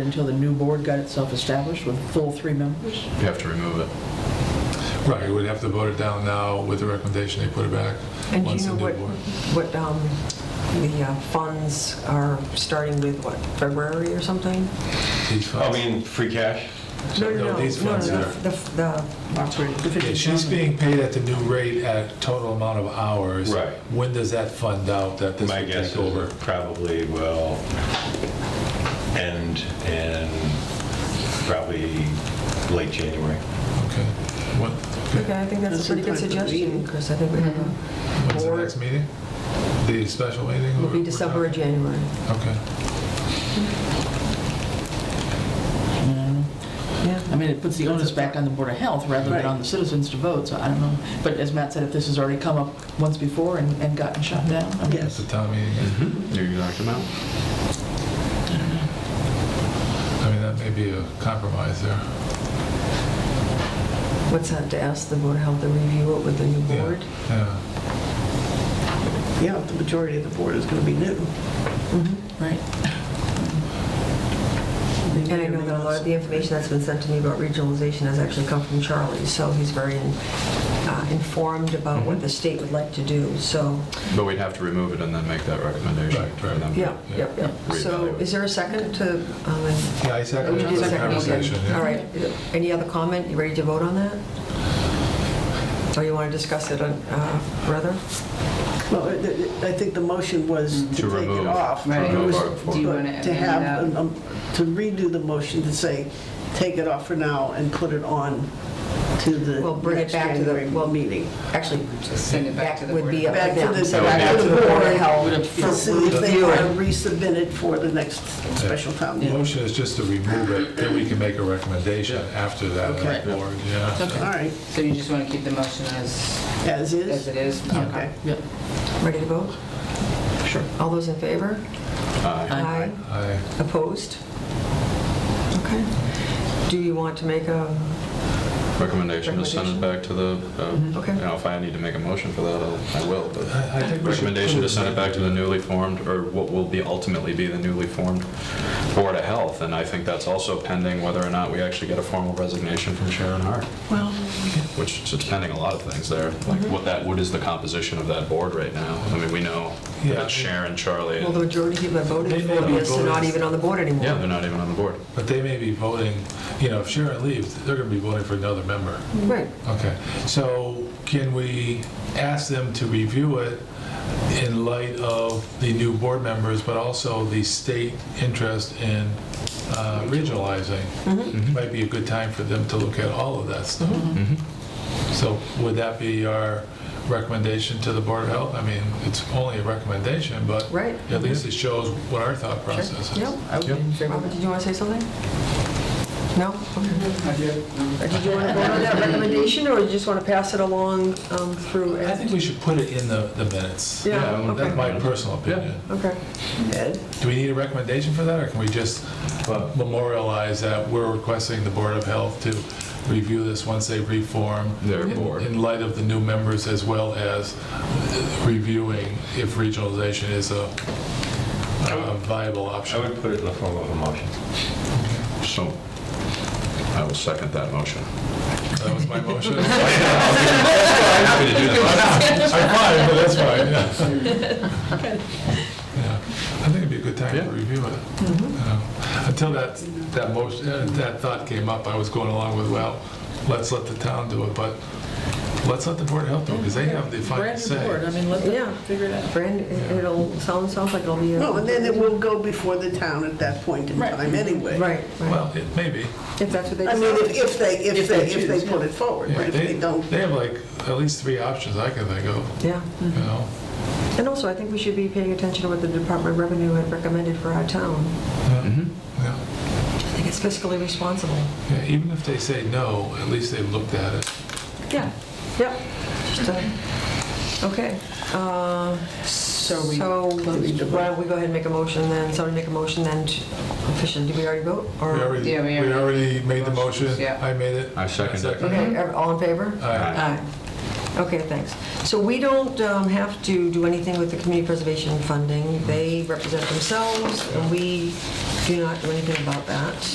until the new board got itself established with full three members? You have to remove it. Right, we'd have to vote it down now with the recommendation they put it back. And do once you know the new what, board- what um, the uh, funds are starting with, what, February or something? These funds. I mean, free cash? No, no, no, these no, funds no, are- the- The, Yeah, she's being paid at the new rate at total amount of hours. Right. When does that fund out that this My will guess take is over? it probably will end in probably late January. Okay. What, okay. okay, I think that's a That's pretty in time good for the suggestion, meeting. Chris, I think we have a When's the Or- next meeting? The special meeting? It'll or- be December or January. Okay. Yeah. I mean, it puts the onus back on the Board of Health rather than Right. on the citizens to vote, so I don't know. But as Matt said, if this has already come up once before and and gotten shut down, I mean, It's the town meeting. You're gonna knock them out? I mean, that may be a compromise there. What's that, to ask the Board of Health to review it with the new Yeah, board? Yeah. Yeah, the majority of the board is going to be new. right? And I know that a lot of the information that's been sent to me about regionalization has actually come from Charlie, so he's very uh, informed about Mm-hmm. what the state would like to do, so, But we'd have to remove it and then make that recommendation. Right, for right. them. yeah, yeah, yeah. So Reevaluate. is there a second to? um, Yeah, I second Okay, the second, okay. conversation. yeah. All right, any other comment? You ready to vote on that? Or you want to discuss it uh, further? Well, it- it- I think the motion was to Mm-hmm. To take it remove- off. to It remove was- Article Do you but wanna amend To have, that? an- um, to redo the motion to say, take it off for now and put it on to the Well, bring it next back to the- January well, meeting. Actually, Send it back to that the would board. be up Back to to them. the, So back to the Board of board. Health. To see if they Review want it. to resubmit it for the next special town The meeting. motion is just to remove it, then we can make a recommendation after that at the Okay. board, yeah. All right, So you just want to keep the motion as, as as is? it is? Okay. Yeah, Ready to vote? sure. All those in favor? Aye. Aye. I, Opposed? Okay. Do you want to make a, Recommendation to send it back to the, uh, Okay. you know, if I need to make a motion for that, I'll- I will, but. I think we should. Recommendation put to send it back to the newly formed, or what will be ultimately be the newly formed Board of Health. And I think that's also pending whether or not we actually get a formal resignation from Sharon Hart. Well. Which is pending a lot of things there. Like what that, what is the composition of that board right now? I mean, we know Yeah. that it's Sharon, Charlie, well, the and- majority of people that They voted may for be this are not voters. even on the board anymore. yeah, they're not even on the board. But they may be voting, you know, if Sharon leaves, they're gonna be voting for another member. Right. Okay, so can we ask them to review it in light of the new board members, but also the state interest in uh, regionalizing? Mm-hmm. Might be a good time for them to look at all of that stuff. Mm-hmm. So would that be our recommendation to the Board of Health? I mean, it's only a recommendation, but Right. at least it shows what our thought process is. Yep. I would be in favor of Robert, that. did you want to say something? No? Okay. Or Did you want to vote on that recommendation, or you just want to pass it along um, through? I think we should put it in the the minutes. Yeah, I- That's okay. my personal opinion. Okay. Ed? Do we need a recommendation for that, or can we just memorialize that we're requesting the Board of Health to review this once they reform? Their in- board. In light of the new members, as well as reviewing if regionalization is a uh, viable I option? would put it in the form of a motion. So I will second that motion. That was my motion. I'm Happy to do that. fine, but that's fine, yeah. Yeah. I think it'd be a good time Yeah. to review it. Mm-hmm. Yeah. Until that, that motion, uh, that thought came up, I was going along with, well, let's let the town do it, but let's let the Board of Health do it, because Oh, they have the final Brand new board, say. I mean, let Yeah. them figure it out. Brand, it- it'll, sound, sounds like it'll be. a- No, and then it will go before the town at that point in Right. time anyway. Right, right. Well, it may be. If that's what they I mean, if- decide. if they, if they they, if they put it forward, but Yeah, if they don't, They have like at least three options I can think of, Yeah. you Mm-hmm. know? And also, I think we should be paying attention to what the Department of Revenue had recommended for our town. Yeah. I think it's fiscally responsible. Yeah, Even if they say no, at least they've looked at it. Yeah. Yep. Just, uh, Okay. Uh, So we So close the why don't we go ahead and make a motion then, somebody make a motion then to- officially, did we already vote? We Or- already, Yeah, we we already made the Motions, motion, yeah. I made it. I second that. Okay, ev- all in favor? All right. Aye. Okay, thanks. So we don't um, have to do anything with the community preservation funding. They represent themselves, and we do not do anything about that.